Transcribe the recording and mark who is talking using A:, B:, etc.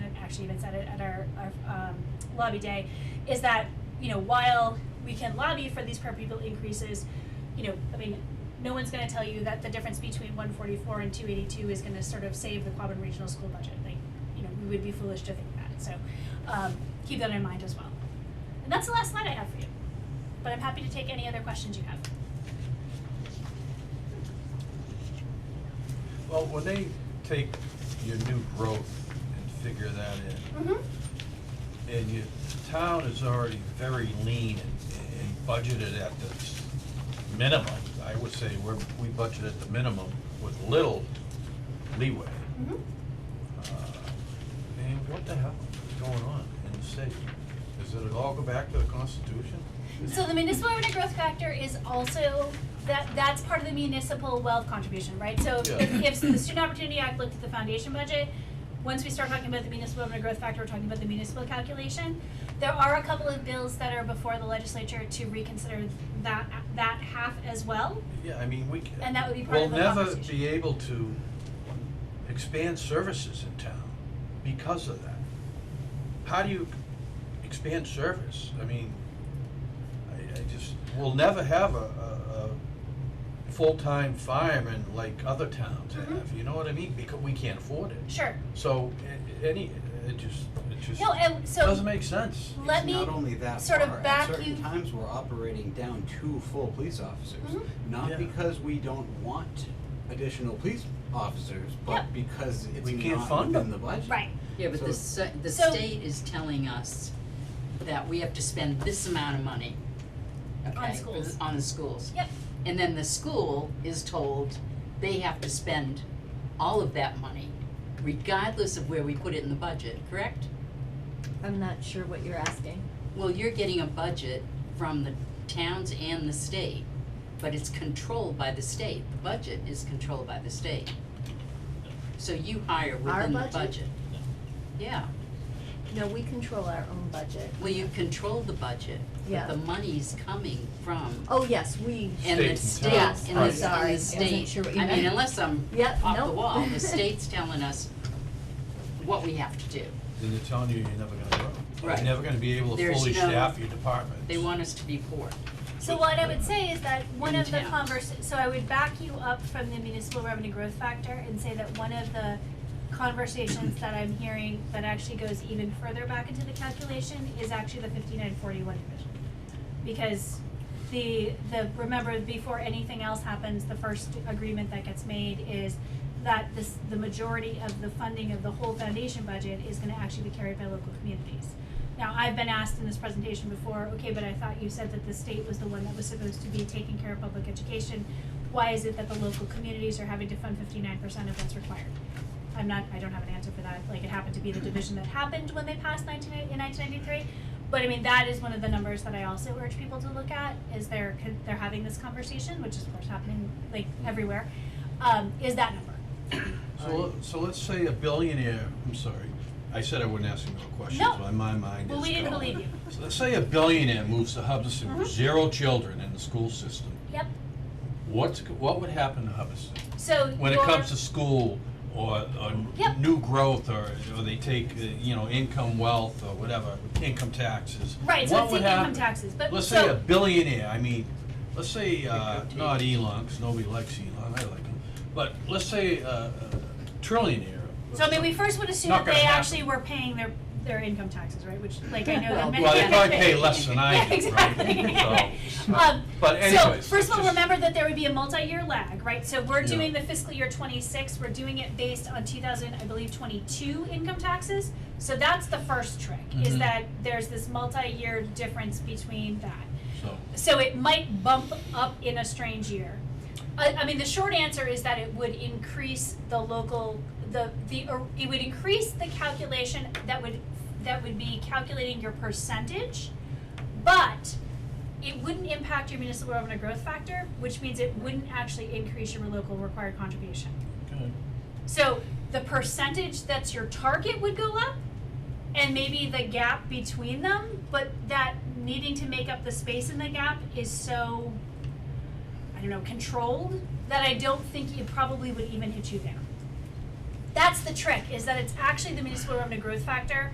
A: actually even said it at our, our um, lobby day, is that, you know, while we can lobby for these per pupil increases, you know, I mean, no one's gonna tell you that the difference between one forty-four and two eighty-two is gonna sort of save the Quabbin Regional School budget, like, you know, we would be foolish to think that, so, um, keep that in mind as well. And that's the last slide I have for you, but I'm happy to take any other questions you have.
B: Well, when they take your new growth and figure that
A: Mm-hmm.
B: in, and your town is already very lean and, and budgeted at this minimum, I would say we're, we budget at the minimum with little leeway.
A: Mm-hmm.
B: Uh, And what the hell is going on in the state? Does it all go back to the Constitution?
A: So the municipal revenue growth factor is also, that, that's part of the municipal wealth contribution, right? So if-
B: Yeah.
A: if the Student Opportunity Act looked at the foundation budget, once we start talking about the municipal revenue growth factor, we're talking about the municipal calculation. There are a couple of bills that are before the legislature to reconsider that, that half as well.
B: Yeah, I mean, we. c-
A: And that would be part of the
B: We'll never
A: conversation.
B: be able to expand services in town because of that. How do you expand service? I mean, I, I just, we'll never have a, a, a full-time fireman like other towns have,
A: Mhm.
B: you know what I mean? Because we can't afford it.
A: Sure,
B: So, a- any, it just, it just
A: No, and so-
B: doesn't make sense.
A: let
C: It's
A: me,
C: not only that
A: sort of
C: far, at
A: back you-
C: certain times we're operating down two full police officers.
A: Mhm.
B: Yeah.
C: Not because we don't want additional police officers,
A: Yep.
C: but because it's
B: We can't
C: not
B: fund
C: within
B: them.
C: the budget.
A: right,
D: Yeah, but the
C: So-
D: se- the
A: So-
D: state is telling us that we have to spend this amount of money, okay? for the-
A: schools.
D: On the schools.
A: Yep.
D: And then the school is told they have to spend all of that money regardless of where we put it in the budget, correct?
E: I'm not sure what you're asking.
D: Well, you're getting a budget from the towns and the state, but it's controlled by the state. The budget is controlled by the state. So you hire
E: Our
D: within the budget.
E: budget?
D: Yeah.
E: No, we control our own budget.
D: Well, you control the budget, but
E: Yeah.
D: the money's coming from,
E: Oh, yes, we,
D: and
B: State
D: the
B: and
D: state,
B: town.
D: and
B: Yes,
D: the,
B: I'm
D: and
E: sorry. I
D: the
E: wasn't
D: state,
E: sure what you
D: I mean,
E: meant.
D: unless I'm
E: Yep,
D: off the
E: nope.
D: wall, the state's telling us what we have to do.
B: Then they're telling you you're never gonna grow.
D: Right.
B: You're never gonna be able to
D: There's
B: fully
D: no-
B: staff your departments.
D: They want us to be poor.
A: So what I would say is that one
D: In
A: of the
D: town.
A: convers, so I would back you up from the municipal revenue growth factor and say that one of the conversations that I'm hearing that actually goes even further back into the calculation is actually the fifty-nine forty-one division. Because the, the, remember, before anything else happens, the first agreement that gets made is that this, the majority of the funding of the whole foundation budget is gonna actually be carried by local communities. Now, I've been asked in this presentation before, okay, but I thought you said that the state was the one that was supposed to be taking care of public education. Why is it that the local communities are having to fund fifty-nine percent of what's required? I'm not, I don't have an answer for that, like, it happened to be the division that happened when they passed nineteen, in nineteen ninety-three. But I mean, that is one of the numbers that I also urge people to look at, is they're, they're having this conversation, which is of course happening, like, everywhere, um, is that number.
B: So, let- so let's say a billionaire, I'm sorry, I said I wouldn't ask you no questions,
A: No.
B: but my mind is
A: Well, we didn't
B: gone.
A: believe you.
B: So let's say a billionaire moves to Hubbardston
A: Mhm.
B: with zero children in the school system.
A: Yep,
B: What's, go- what would happen to Hubbardston?
A: so
B: When it
A: your-
B: comes to school or, or
A: Yep.
B: new growth or, or they take, uh, you know, income wealth or whatever, income taxes.
A: Right, so
B: What
A: it's
B: would
A: the income
B: happen?
A: taxes, but so.
B: Let's say a billionaire, I mean, let's say, uh,
D: Take your
B: not Elon, 'cause nobody likes Elon, I like him, but let's say, uh, a trillionaire.
A: So I mean, we first would assume
B: Not
A: that they
B: gonna happen.
A: actually were paying their, their income taxes, right, which, like, I know that many.
B: Well, they probably pay less than I do, right?
A: Yeah, exactly.
B: So,
A: Um,
B: But anyways.
A: So, first of all,
B: just-
A: remember that there would be a multi-year lag, right, so we're
B: Yeah.
A: doing the fiscal year twenty-six, we're doing it based on two thousand, I believe, twenty-two income taxes. So that's the first trick, is
B: Mhm.
A: that there's this multi-year difference between that
B: So,
A: so it might bump up in a strange year. I, I mean, the short answer is that it would increase the local, the, the, or it would increase the calculation that would, that would be calculating your percentage, but it wouldn't impact your municipal revenue growth factor, which means it wouldn't actually increase your local required contribution.
B: good.
A: So the percentage that's your target would go up and maybe the gap between them, but that needing to make up the space in the gap is so I don't know, controlled that I don't think it probably would even hit you there. that's the trick, is that it's actually the municipal revenue growth factor